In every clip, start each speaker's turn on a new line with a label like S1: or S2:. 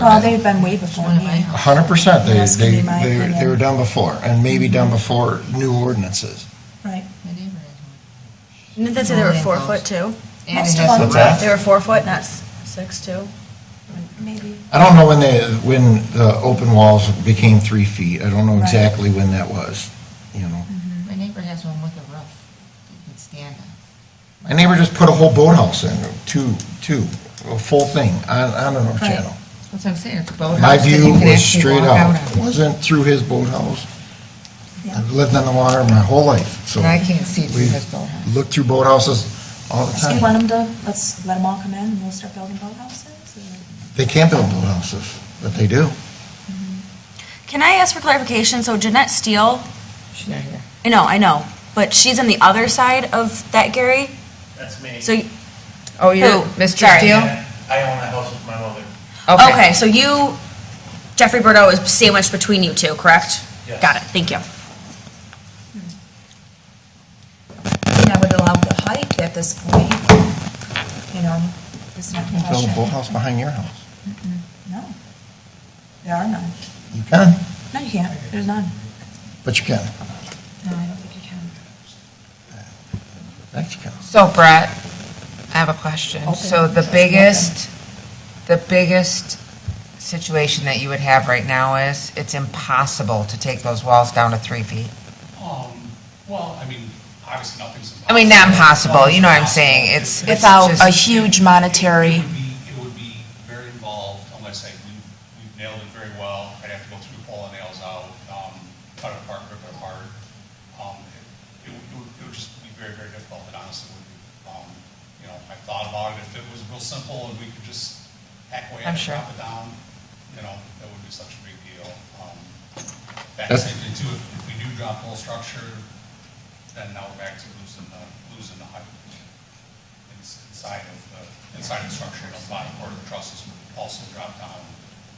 S1: Well, they've been way before me.
S2: Hundred percent, they,
S1: That's gonna
S2: they,
S1: be my
S2: they were- they were
S1: opinion.
S2: done before, and maybe done before new ordinances.
S1: Right.
S3: Didn't they say they were four foot too?
S1: it
S4: And
S1: has
S4: it
S1: a
S2: What's that?
S4: has
S3: They were four foot, not s- six two?
S1: Maybe.
S2: I don't know when they, when the open walls became three feet, I don't know
S1: Right.
S2: exactly when that was, you know.
S4: my neighbor has one with a roof you can stand on.
S2: My neighbor just put a whole boathouse in, two, two, a full thing, on, on the North
S1: Right.
S2: Channel.
S4: That's what I'm saying, it's a boathouse.
S2: My
S4: that you
S2: view
S4: can
S2: was
S4: actually
S2: straight
S4: walk
S2: out,
S4: on.
S2: It wasn't through his boathouse.
S1: Yeah.
S2: I've lived on the water my whole life, so.
S4: And I can't see through
S2: we've
S4: his boathouse.
S2: Looked through boathouses all the
S1: So you want
S2: time.
S1: them to, let's let them all come in and we'll start building boathouses? or-
S2: They can't build boathouses, but they do.
S3: Can I ask for clarification? So Jeanette Steele,
S4: She's not here.
S3: I know, I know, but she's on the other side of that Gary?
S5: That's me.
S3: So, y-
S4: Oh, you're
S3: Who?
S4: Mr.
S3: Sorry.
S4: Steele?
S5: I own a house with my mother.
S3: okay, so you, Jeffrey Bordeaux is sandwiched between you two, correct?
S5: Yes.
S3: Got it, thank you.
S6: I would allow the height at this point, you know, it's not
S2: You can build a
S6: question.
S2: boathouse behind your house.
S1: No. There are none.
S2: You can,
S1: No, you can't. There's none.
S2: but you can.
S6: No, I don't think you can.
S2: That you can.
S4: So Brett, I have a question.
S6: Open.
S4: So the
S6: Just
S4: biggest, the biggest situation that you would have right now is it's impossible to take those walls down to three feet.
S7: Um, well, I mean, obviously nothing's impossible.
S4: I mean, not impossible,
S7: Nothing's
S4: you know what I'm
S7: impossible.
S4: saying? It's, it's
S6: Without Oh, a
S4: just,
S6: huge
S7: It
S6: monetary,
S7: would be, it would be very involved, unless I, we, we've nailed it very well. I'd have to go through all the nails out, um, cut it apart, rip it apart. Um, it, it would, it would- it would just be very, very difficult, and honestly, would be, um, you know, I thought about it, if it was real simple and we could just hack away
S4: I'm
S7: at it,
S4: sure.
S7: drop it down, you know, that wouldn't be such a big deal. Um,
S2: That's-
S7: That's it, and too, if if we do drop the whole structure, then now we're back to losing the, losing the height ins- inside of the, inside of the structure, and the bottom part of the trusses would also drop down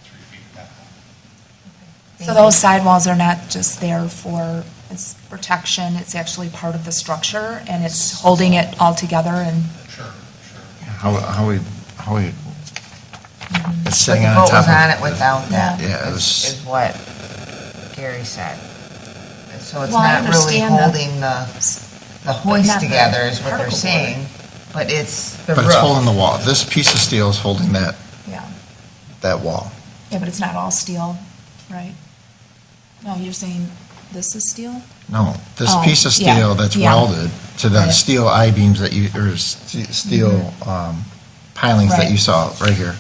S7: three feet at that point.
S6: so those sidewalls are not just there for its protection, it's actually part of the structure, and it's holding it all together and
S7: Sure, sure.
S2: How, how we, how we, it's
S4: but
S2: sitting
S4: the
S2: on
S4: boat
S2: top
S4: was
S2: of.
S4: on it without that,
S2: Yeah, it
S4: is
S2: was,
S4: what Gary said. So it's
S6: Well, I
S4: not really
S6: understand that.
S4: holding the, the hoist
S6: Not the
S4: together is what they're
S6: particle board.
S4: saying, but it's the
S2: but it's holding
S4: roof.
S2: the wall. This piece of steel is holding that,
S6: Yeah,
S2: that wall.
S6: yeah, but it's not all steel, right? No, you're saying this is steel?
S2: No, this
S6: Oh,
S2: piece of
S6: yeah,
S2: steel that's
S6: yeah.
S2: welded to the
S6: Right.
S2: steel I-beams that you, or st- steel, um, pilings that
S6: Mm-hmm. Right. Mm-hmm.
S2: you saw right here.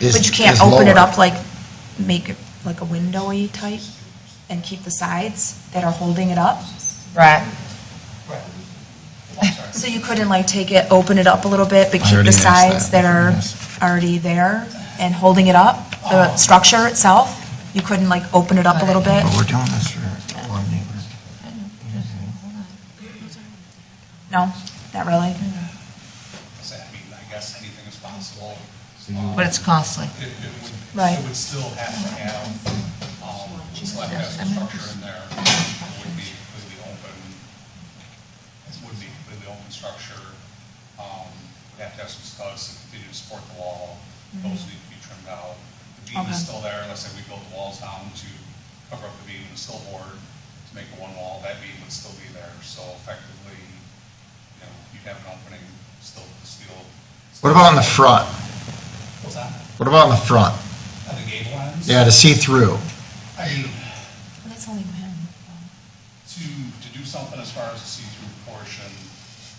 S2: is-
S6: But you can't
S2: is
S6: open it
S2: lower.
S6: up like, make it like a windowy type and keep the sides that are holding it up?
S4: Brett,
S7: Right. I'm sorry.
S6: So you couldn't like take it, open it up a little bit, but
S2: I
S6: keep
S2: already
S6: the
S2: asked
S6: sides
S2: that.
S6: that are
S2: Yes.
S6: already there and holding it up, the structure itself? You couldn't like open it up a little bit?
S2: But we're doing this for one neighbor.
S6: No, not really?
S7: So, I mean, I guess anything is possible.
S4: but it's costly.
S7: It, it would,
S6: Right.
S7: it would still have to have, um, select as a structure in there. It would be completely open, it would be completely open structure. Um, would have to have some studs to continue to support the wall. Those need to be trimmed out. The beam
S6: Okay.
S7: is still there, let's say we built the walls down to cover up the beam and still board to make it one wall, that beam would still be there. So effectively, you know, you'd have an opening, still, still.
S2: What about in the front?
S7: What's that?
S2: What about in the front?
S7: At the gable ends?
S2: Yeah, to see through.
S7: I mean,
S6: That's only one.
S7: to, to do something as far as a see-through portion,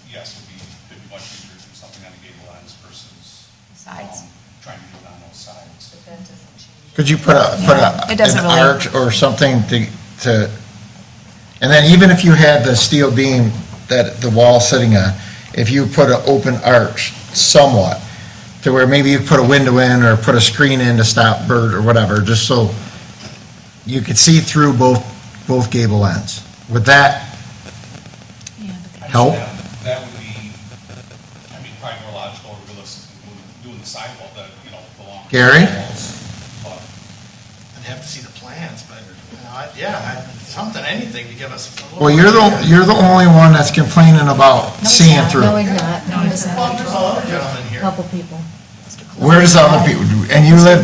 S7: yes, would be, it'd be much easier to do something on the gable ends versus.
S6: Sides.
S7: um, Trying to do it on those sides.
S2: Could you put a, put a,
S6: It doesn't
S2: an
S6: really-
S2: arch or something to, to, and then even if you had the steel beam that the wall sitting on, if you put an open arch somewhat, to where maybe you put a window in or put a screen in to stop bird or whatever, just so you could see through both, both gable ends. Would that,
S6: Yeah, but
S7: I just-
S2: Help?
S7: that- That would be, I mean, probably more logical or realistic than doing- doing the sidewall, the, you know, the long.
S2: Gary?
S7: walls, But
S8: I'd have to see the plans, but, you know, I- yeah, I- something, anything to give us. a little-
S2: well, you're the, you're the only one that's complaining about seeing through.
S8: Well, there's a lot of gentlemen here.
S2: Where's the other people? And you live